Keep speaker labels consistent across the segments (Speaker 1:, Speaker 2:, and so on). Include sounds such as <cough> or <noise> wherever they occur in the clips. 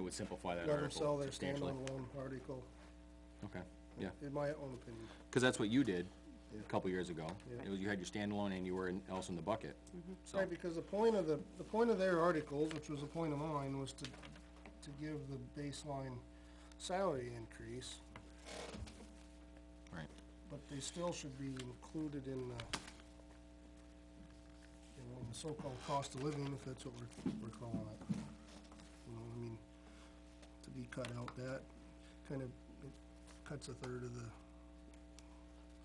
Speaker 1: would simplify that
Speaker 2: Let them sell
Speaker 1: article
Speaker 2: their
Speaker 1: substantially.
Speaker 2: standalone loan article,
Speaker 1: Okay, yeah,
Speaker 2: in my own opinion.
Speaker 1: because that's what you did a couple years ago. It was, you had your standalone and you were in- else in the bucket,
Speaker 3: Mm-hmm.
Speaker 1: so.
Speaker 2: Right, because the point of the, the point of their articles, which was the point of mine, was to, to give the baseline salary increase,
Speaker 1: Right.
Speaker 2: but they still should be included in the, you know, in the so-called cost of living, if that's what we're, we're calling it. You know, I mean, to be cut out, that kind of, it cuts a third of the,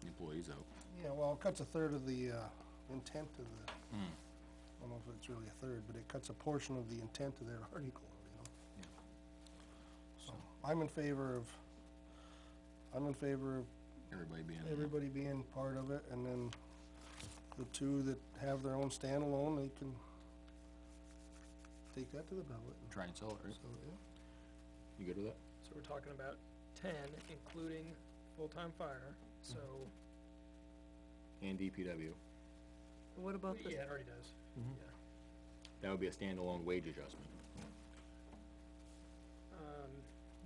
Speaker 1: Employees out.
Speaker 2: yeah, well, it cuts a third of the, uh, intent of the, I don't know if it's really a third, but it cuts a portion of the intent of their <laughs> article, you know?
Speaker 1: Yeah.
Speaker 2: So, I'm in favor of, I'm in favor of
Speaker 1: Everybody being,
Speaker 2: everybody being part of it, and then the two that have their own standalone, they can take that to the ballot, and
Speaker 1: try and sell it, right?
Speaker 2: so, yeah.
Speaker 1: You good with that?
Speaker 3: So we're talking about ten, including full-time fire, so,
Speaker 1: And DPW.
Speaker 4: What about the,
Speaker 3: yeah, it already does. Yeah.
Speaker 1: That would be a standalone wage adjustment.
Speaker 3: Um,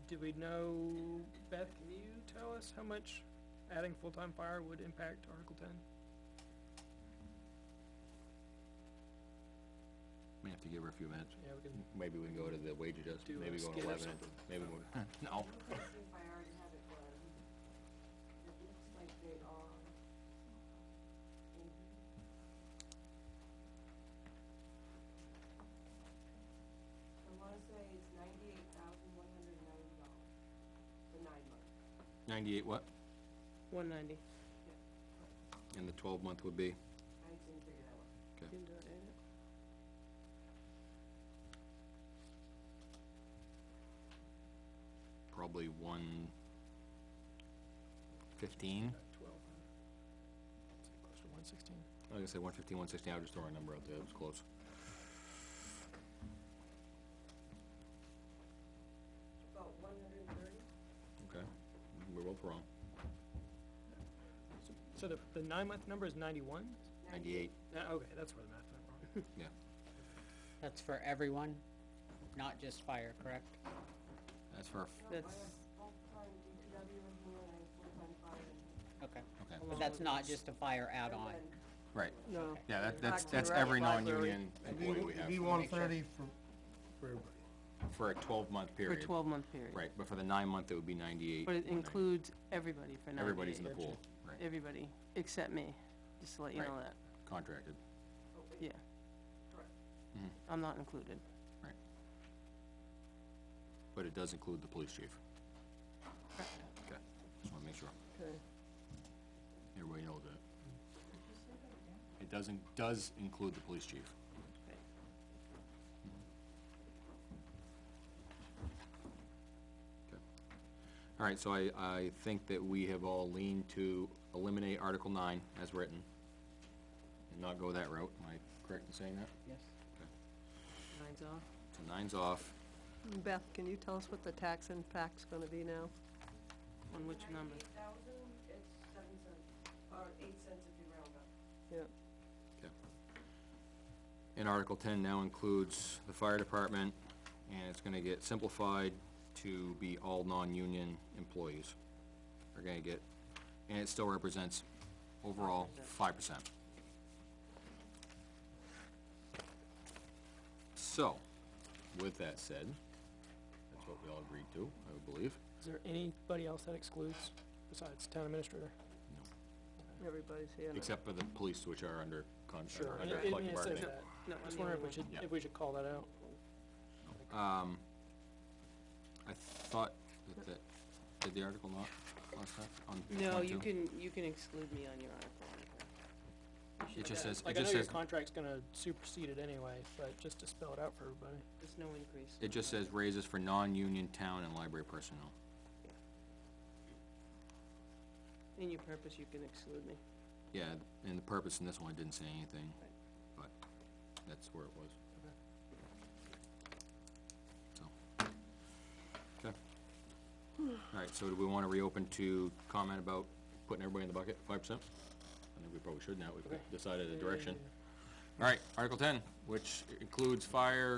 Speaker 3: do we know, Beth, can you tell us how much adding full-time fire would impact Article ten?
Speaker 1: May have to give her a few minutes.
Speaker 3: Yeah, we can,
Speaker 1: Maybe we can go to the wage adjustment,
Speaker 3: Do
Speaker 1: maybe
Speaker 3: a
Speaker 1: go to
Speaker 3: skit or
Speaker 1: eleven,
Speaker 3: something.
Speaker 1: maybe we, <laughs> no.
Speaker 5: Question if I already have it, but it looks like they are. I wanna say it's ninety-eight thousand one hundred and ninety dollars for nine months.
Speaker 1: Ninety-eight what?
Speaker 4: one ninety,
Speaker 1: And the twelve month would be?
Speaker 5: I didn't figure that one.
Speaker 4: didn't do it, did it?
Speaker 1: probably one fifteen.
Speaker 3: twelve. Close to one sixteen.
Speaker 1: I was gonna say one fifteen, one sixteen, I was just throwing a number out there, it was close.
Speaker 5: About one hundred and thirty?
Speaker 1: Okay. We're both wrong.
Speaker 3: So the, the nine-month number is ninety-one?
Speaker 1: Ninety-eight,
Speaker 3: okay, that's where the math went wrong.
Speaker 1: yeah.
Speaker 6: That's for everyone, not just fire, correct?
Speaker 1: That's for, a f-
Speaker 5: I have
Speaker 6: That's,
Speaker 5: full-time DPW in here and I have full-time fire in here.
Speaker 6: okay,
Speaker 1: okay,
Speaker 6: but that's not just a fire
Speaker 5: And
Speaker 6: add-on,
Speaker 5: then
Speaker 1: right.
Speaker 4: No.
Speaker 1: Yeah, that, that's,
Speaker 4: Back to
Speaker 1: that's
Speaker 4: the
Speaker 1: every
Speaker 4: library.
Speaker 1: non-union
Speaker 2: It'd be-
Speaker 1: employee we
Speaker 2: It'd be
Speaker 1: have
Speaker 2: one thirty for, for everybody.
Speaker 1: for a twelve month
Speaker 4: for a
Speaker 1: period.
Speaker 4: twelve-month period.
Speaker 1: Right, but for the nine month, it would be ninety-eight.
Speaker 4: But it
Speaker 1: 190.
Speaker 4: includes everybody for ninety-eight.
Speaker 1: Everybody's in the pool, right,
Speaker 4: Everybody, except me, just to let you know
Speaker 1: Right.
Speaker 4: that,
Speaker 1: contracted,
Speaker 4: yeah.
Speaker 1: Mm-hmm.
Speaker 4: I'm not included.
Speaker 1: right. But it does include the police chief. Okay, just wanna make sure.
Speaker 4: Okay.
Speaker 1: Everybody knows that. It doesn't, does include the police chief. Okay. All right, so I, I think that we have all leaned to eliminate Article nine as written and not go that route. Am I correct in saying that?
Speaker 6: yes.
Speaker 4: Nine's off.
Speaker 1: So nine's off.
Speaker 7: Beth, can you tell us what the tax impact's gonna be now?
Speaker 4: On which number?
Speaker 5: Ninety-eight thousand, it's seven cents, or eight cents if you round up.
Speaker 7: Yeah,
Speaker 1: Okay. And Article ten now includes the fire department, and it's gonna get simplified to be all non-union employees. Are gonna get, and it still represents overall five percent. So, with that said, that's what we all agreed to, I believe.
Speaker 3: Is there anybody else that excludes besides town administrator?
Speaker 7: everybody's here now.
Speaker 1: Except for the police, which are under contract,
Speaker 3: Sure, I
Speaker 1: under
Speaker 3: didn't mean
Speaker 1: collective
Speaker 3: to say
Speaker 1: bargaining.
Speaker 3: that.
Speaker 4: No,
Speaker 3: I was
Speaker 4: I'm the
Speaker 3: wondering
Speaker 4: only
Speaker 3: if we
Speaker 4: one.
Speaker 3: should,
Speaker 1: Yeah.
Speaker 3: if we should call that out.
Speaker 1: I thought that, that, did the article not last time on point
Speaker 4: No, you
Speaker 1: two?
Speaker 4: can, you can exclude me on your article.
Speaker 1: It just says, it
Speaker 3: Like, I know
Speaker 1: just
Speaker 3: your
Speaker 1: says,
Speaker 3: contract's gonna supersede it anyway, but just to spell it out for everybody.
Speaker 4: There's no increase.
Speaker 1: it just says raises for non-union town and library personnel.
Speaker 4: In your purpose, you can exclude me.
Speaker 1: Yeah, and the purpose in this one, it didn't say anything, but that's where it was. So, okay. Alright, so do we wanna reopen to comment about putting everybody in the bucket, five percent? I think we probably should now, we've decided the direction. Alright, Article ten, which includes fire,